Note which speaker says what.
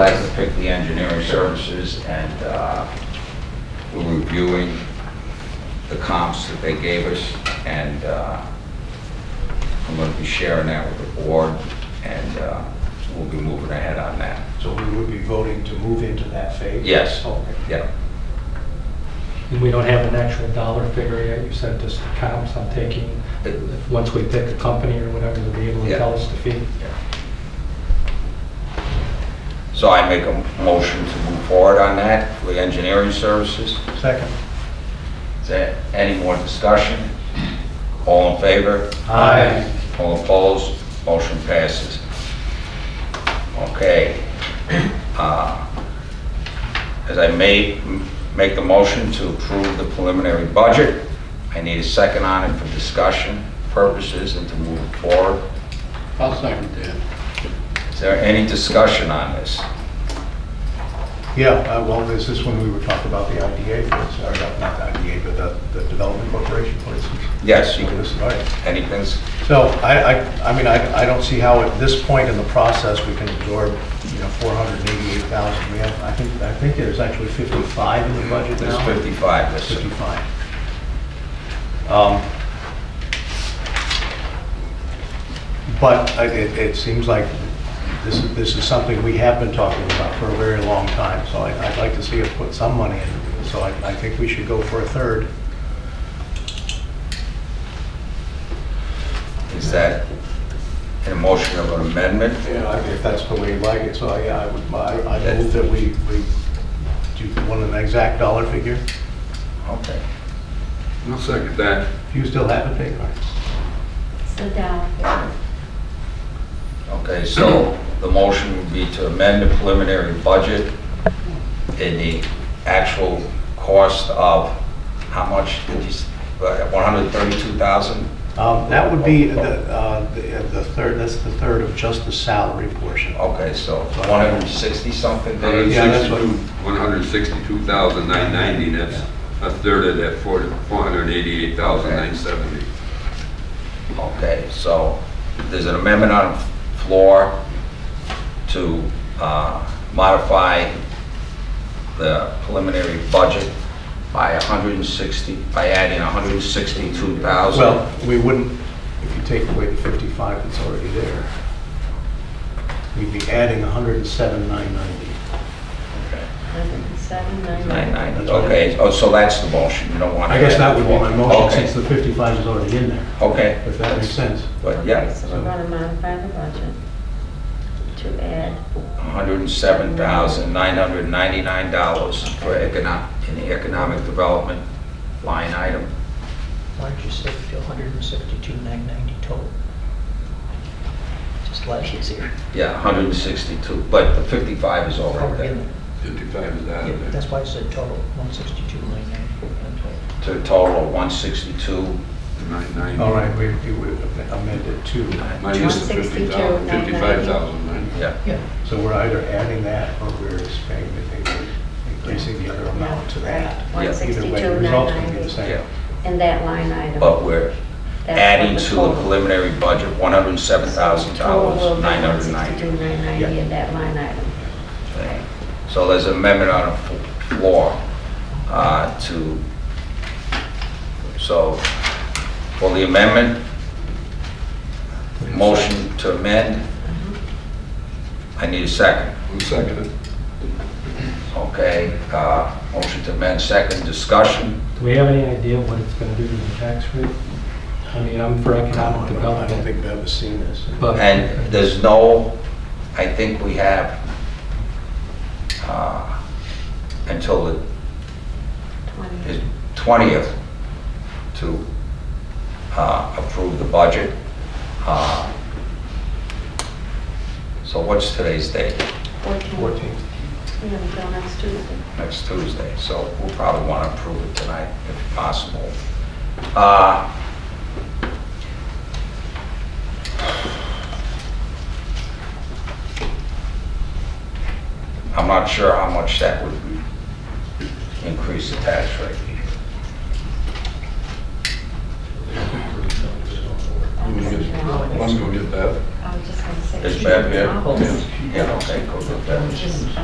Speaker 1: guys to pick the engineering services, and uh, we're reviewing the comps that they gave us, and uh, I'm going to be sharing that with the board, and uh, we'll be moving ahead on that.
Speaker 2: So we would be voting to move into that phase?
Speaker 1: Yes.
Speaker 2: Okay.
Speaker 1: Yeah,
Speaker 3: And we don't have an actual dollar figure yet, you said just the comps I'm taking, once we pick a company or whatever, they'll be able to
Speaker 1: Yeah.
Speaker 3: tell us the fee.
Speaker 1: so I make a motion to move forward on that with engineering services.
Speaker 2: Second.
Speaker 1: Is there any more discussion? All in favor?
Speaker 3: Aye.
Speaker 1: All opposed? Motion passes. Okay. Uh, As I may m- make the motion to approve the preliminary budget, I need a second on it for discussion purposes and to move it forward.
Speaker 4: I'll second that.
Speaker 1: Is there any discussion on this?
Speaker 2: Yeah, uh, well, this is when we were talking about the IDA, for ins- or not not the IDA, but the- the Development Corporation, for instance.
Speaker 1: Yes, you
Speaker 2: So
Speaker 1: can,
Speaker 2: this is all right.
Speaker 1: anything's,
Speaker 2: So I, I, I mean, I, I don't see how at this point in the process, we can absorb, you know, 488,000. We have, I think, I think there's actually 55 in the budget
Speaker 1: there's
Speaker 2: now.
Speaker 1: 55, that's
Speaker 2: 55. Um, But I- it, it seems like this, is- this is something we have been talking about for a very long time, so I- I'd like to see us put some money in. So I, I think we should go for a third.
Speaker 1: is that an motion of an amendment?
Speaker 2: Yeah, if that's the way you like it, so I, I would, I I move that we, we, do you want an exact dollar figure?
Speaker 1: Okay.
Speaker 4: I'll second that.
Speaker 2: Do you still have it, Dave? All right.
Speaker 5: Sit down.
Speaker 1: Okay, so the motion would be to amend the preliminary budget in the actual cost of, how much did you, s- uh, 132,000?
Speaker 2: Um, That would be the, uh, the the third, that's the third of just the salary portion.
Speaker 1: Okay, so 160 something days?
Speaker 2: Yeah, that's what-
Speaker 4: 162,990, that's a third of that 40 488,970.
Speaker 1: Okay, so there's an amendment on the floor to uh, modify the preliminary budget by 160, by adding 162,000.
Speaker 2: Well, we wouldn't, if you take away the 55 that's already there, we'd be adding 107,990.
Speaker 5: Seven, nine,
Speaker 1: Nine,
Speaker 5: nine.
Speaker 1: nine, okay, oh, so that's the motion, you don't want to...
Speaker 2: I guess that would be my motion,
Speaker 1: Okay,
Speaker 2: since the 55 is already in there,
Speaker 1: Okay,
Speaker 2: if that makes sense.
Speaker 1: but
Speaker 5: Okay,
Speaker 1: yeah,
Speaker 5: So we're gonna modify the budget to add,
Speaker 1: $107,999 for economic, in the economic development line item.
Speaker 6: Why don't you save it to 172,990 total? Just last year's here.
Speaker 1: Yeah, 162, but the 55 is already
Speaker 6: Already in
Speaker 1: there,
Speaker 6: there.
Speaker 4: 55 is out
Speaker 6: Yeah,
Speaker 4: of there.
Speaker 6: That's why I said total, 162,990.
Speaker 1: to a total of 162,
Speaker 4: 990.
Speaker 2: All right, we we would amend it to,
Speaker 4: Minus the 50,000,
Speaker 5: 162,990.
Speaker 4: 55,000, right?
Speaker 1: yeah,
Speaker 6: Yeah,
Speaker 2: so we're either adding that or we're expanding, it, increasing the other amount to that.
Speaker 5: yeah,
Speaker 1: Yeah,
Speaker 5: one
Speaker 2: Either way, the
Speaker 5: sixty-two,
Speaker 2: result's
Speaker 5: nine
Speaker 2: going to be the
Speaker 5: ninety,
Speaker 2: same.
Speaker 1: yeah.
Speaker 5: in that line item.
Speaker 1: But we're
Speaker 5: That's
Speaker 1: adding
Speaker 5: what
Speaker 1: to the
Speaker 5: total-
Speaker 1: preliminary budget,
Speaker 5: Total will be
Speaker 1: $107,990.
Speaker 5: 162,990 in that line item.
Speaker 1: thing. So there's an amendment on the fo- floor uh, to, so for the amendment, motion to amend, I need a second,
Speaker 4: Who seconded it?
Speaker 1: okay? uh, Motion to amend, second, discussion,
Speaker 3: Do we have any idea what it's gonna do to the tax rate? I mean, I'm for
Speaker 2: I
Speaker 3: economic
Speaker 2: don't- I don't
Speaker 3: development,
Speaker 2: think Bev has seen this.
Speaker 3: but.
Speaker 1: and there's no, I think we have uh, until the
Speaker 5: Twenty.
Speaker 1: is 20th to uh, approve the budget. Uh, So what's today's date?
Speaker 2: 14.
Speaker 5: Yeah, we go next Tuesday.
Speaker 1: Next Tuesday, so we'll probably want to approve it tonight if possible. Uh, I'm not sure how much that would increase the tax rate.
Speaker 5: I was
Speaker 4: Yes.
Speaker 5: gonna-
Speaker 4: Let's go get that.
Speaker 5: I was just gonna say.
Speaker 1: Is Bev here?
Speaker 5: I'll just-
Speaker 1: Yeah, okay, go with that.
Speaker 5: just-